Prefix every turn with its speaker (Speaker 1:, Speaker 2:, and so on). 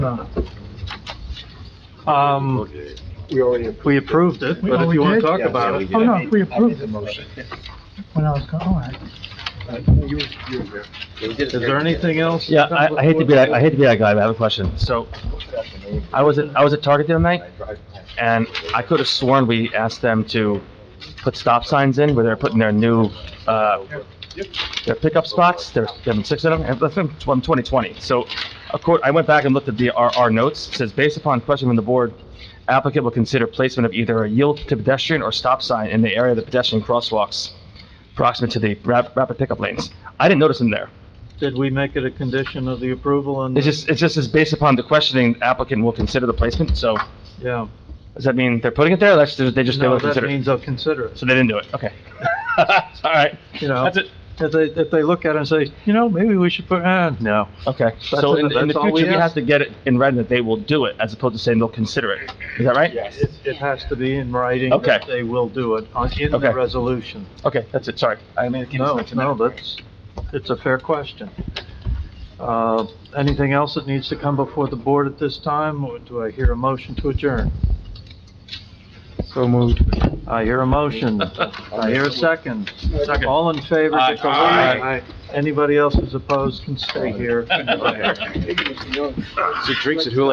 Speaker 1: not?
Speaker 2: Um,
Speaker 3: We already.
Speaker 2: we approved it, but if you want to talk about it,
Speaker 1: Oh, no, we approved the motion. When I was going, all right.
Speaker 2: is there anything else?
Speaker 4: Yeah, I, I hate to be that, I hate to be that guy, but I have a question. So, I was at, I was at Target the other night, and I could have sworn we asked them to put stop signs in where they're putting their new, uh, their pickup spots, there's, there have been six of them, and that's from twen- 2020. So, of course, I went back and looked at the, our, our notes, it says, based upon question from the board, applicant will consider placement of either a yield to pedestrian or stop sign in the area of the pedestrian crosswalks proximate to the rap- rapid pickup lanes. I didn't notice them there.
Speaker 2: Did we make it a condition of the approval and,
Speaker 4: It's just, it's just, it's based upon the questioning, the applicant will consider the placement, so
Speaker 2: yeah?
Speaker 4: does that mean they're putting it there, or that's, they just, they
Speaker 2: No,
Speaker 4: will
Speaker 2: that
Speaker 4: consider? it?
Speaker 2: means they'll consider it,
Speaker 4: So they didn't do it, okay. All right,
Speaker 2: you know?
Speaker 4: that's it,
Speaker 2: If they, if they look at it and say, you know, maybe we should put, eh, no.
Speaker 4: okay. So
Speaker 2: it,
Speaker 4: in, in the
Speaker 2: that's all we
Speaker 4: future, we have
Speaker 2: ask.
Speaker 4: to get it in writing that they will do it, as opposed to saying they'll consider it, is that right?
Speaker 2: It, it has to be in writing that
Speaker 4: Okay.
Speaker 2: they will do it on, in the
Speaker 4: Okay.
Speaker 2: resolution.
Speaker 4: Okay, that's it, sorry. I mean,
Speaker 2: No, no, that's, it's a fair question. Uh, anything else that needs to come before the board at this time, or do I hear a motion to adjourn?
Speaker 4: So moved.
Speaker 2: I hear a motion. I hear a second.
Speaker 4: Second.
Speaker 2: All in favor?
Speaker 4: Aye.
Speaker 2: declare
Speaker 4: Aye.
Speaker 2: Anybody else who's opposed can stay here.
Speaker 3: She drinks at